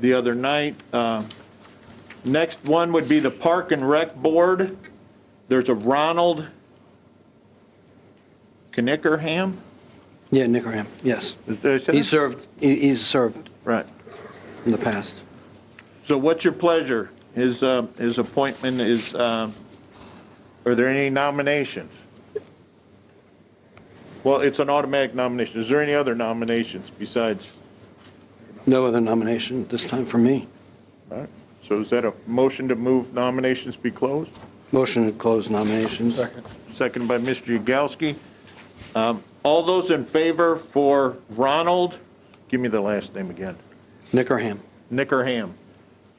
the other night. Uh, Next one would be the Park and Rec Board. There's a Ronald Knickerham? Yeah, Nickerham, yes. Is there- is that- He served, he- he's served Right. in the past. So what's your pleasure? His, uh, his appointment is, uh, are there any nominations? Well, it's an automatic nomination. Is there any other nominations besides? No other nomination this time for me. all right. So is that a motion to move nominations be closed? Motion to close nominations. Second by Mr. Yagowski. Um, All those in favor for Ronald, give me the last name again, Nickerham, Nickerham,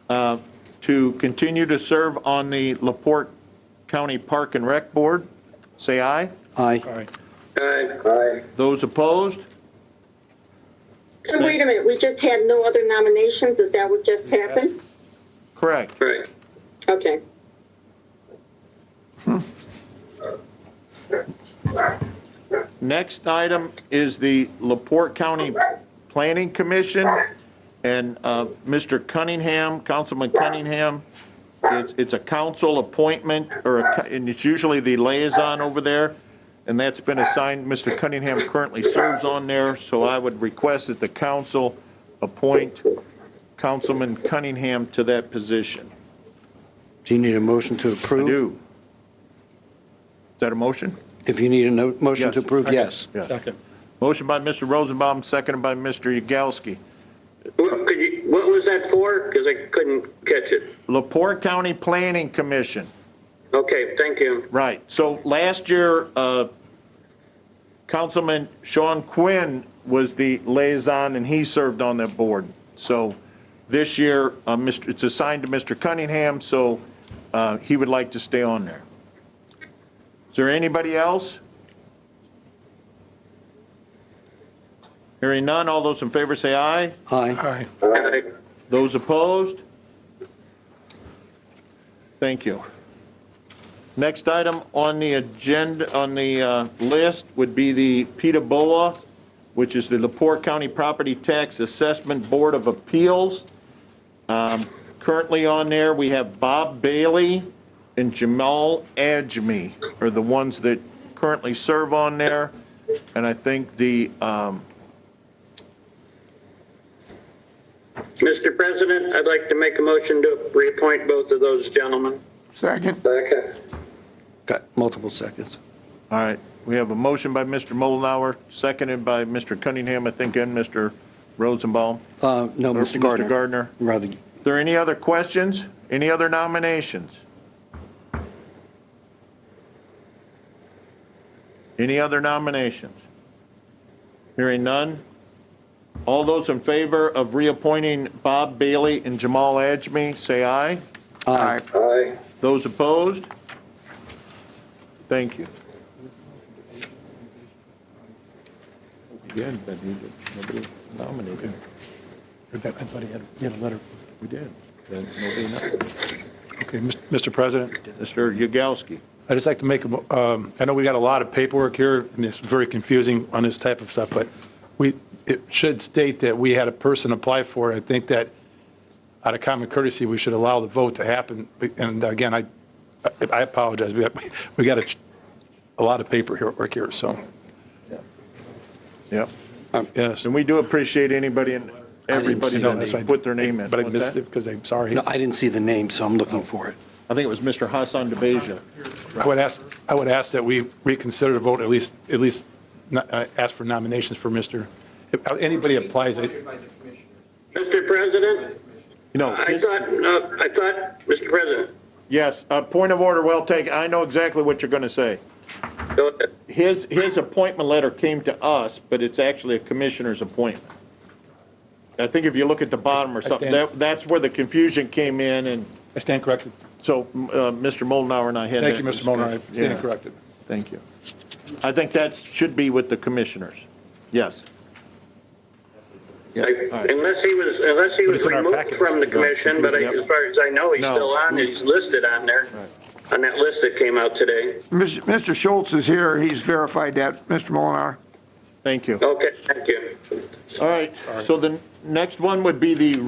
uh, to continue to serve on the Laporte County Park and Rec Board, say aye. aye. Aye. Aye. Those opposed? So wait a minute, we just had no other nominations, is that what just happened? Correct. Right. Okay. Next item is the Laporte County Planning Commission, and uh, Mr. Cunningham, Councilman Cunningham, it's, it's a council appointment, or, a co- and it's usually the liaison over there, and that's been assigned, Mr. Cunningham currently serves on there, so I would request that the council appoint Councilman Cunningham to that position. Do you need a motion to I approve? do. Is that a motion? If you need a no- motion Yes. to approve, Second. yes. Yeah. Second. Motion by Mr. Rosenbaum, seconded by Mr. Yagowski. What, could you, what was that for? Because I couldn't catch it. Lepore County Planning Commission, Okay, thank you. right. So last year, uh, Councilman Sean Quinn was the liaison, and he served on that board. So this year, uh, Mr. it's assigned to Mr. Cunningham, so uh, he would like to stay on there. Is there anybody else? Hearing none, all those in favor say aye. Aye. Aye. Aye. Those opposed? Thank you. Next item on the agenda, on the uh, list would be the PETA BOA, which is the Lepore County Property Tax Assessment Board of Appeals. Um, Currently on there, we have Bob Bailey and Jamal Ajmi are the ones that currently serve on there. And I think the, um, Mr. President, I'd like to make a motion to reappoint both of those gentlemen. Second. Second. Got multiple seconds. All right, we have a motion by Mr. Mullenhour, seconded by Mr. Cunningham, I think, and Mr. Rosenbaum. Uh, No, Or Mr. Gardner. Gardner. Rather, Are there any other questions? Any other nominations? Any other nominations? Hearing none? All those in favor of reappointing Bob Bailey and Jamal Ajmi, say aye. aye. Aye. Those opposed? Thank you. Again, but he- nobody nominated. I thought he had, he had a letter. We did. Then nobody nominated. Okay, Mis- Mr. President, Mr. Yagowski. I'd just like to make, a mo- um, I know we got a lot of paperwork here, and it's very confusing on this type of stuff, but we, it should state that we had a person apply for it. I think that out of common courtesy, we should allow the vote to happen. And again, I, I apologize, we got, we got a, a lot of paper here, work here, so, Yep. yes. And we do appreciate anybody and everybody see that. That's that why I- put their name in. But I What's missed that? it because I'm sorry. No, I didn't see the name, so I'm looking for it. I think it was Mr. Hassan DeBeja. I would ask, I would ask that we reconsider the vote, at least, at least no- uh, ask for nominations for Mr., if uh, anybody applies, I- Mr. President, You know, I thought, uh, I thought, Mr. President, yes, uh, point of order, well taken. I know exactly what you're going to say. go ahead. His, his appointment letter came to us, but it's actually a commissioner's appointment. I think if you look at the bottom or I something, stand- that, that's where the confusion came in, and I stand corrected. so, uh, Mr. Molnar and I had. Thank that you, Mr. Molnar, I discussion. stand Yeah, corrected. Thank you. I think that should be with the commissioners. Yes. Yeah, all I- right. Unless he was, unless he But was it's in our removed packet. from the commission, but I- Yep. as far as I know, he's No. still on, he's listed on there, on that list that came out today. Mr. Schultz is here, he's verified that, Mr. Molinar. Thank you. Okay, thank you. All right, so the next one would be the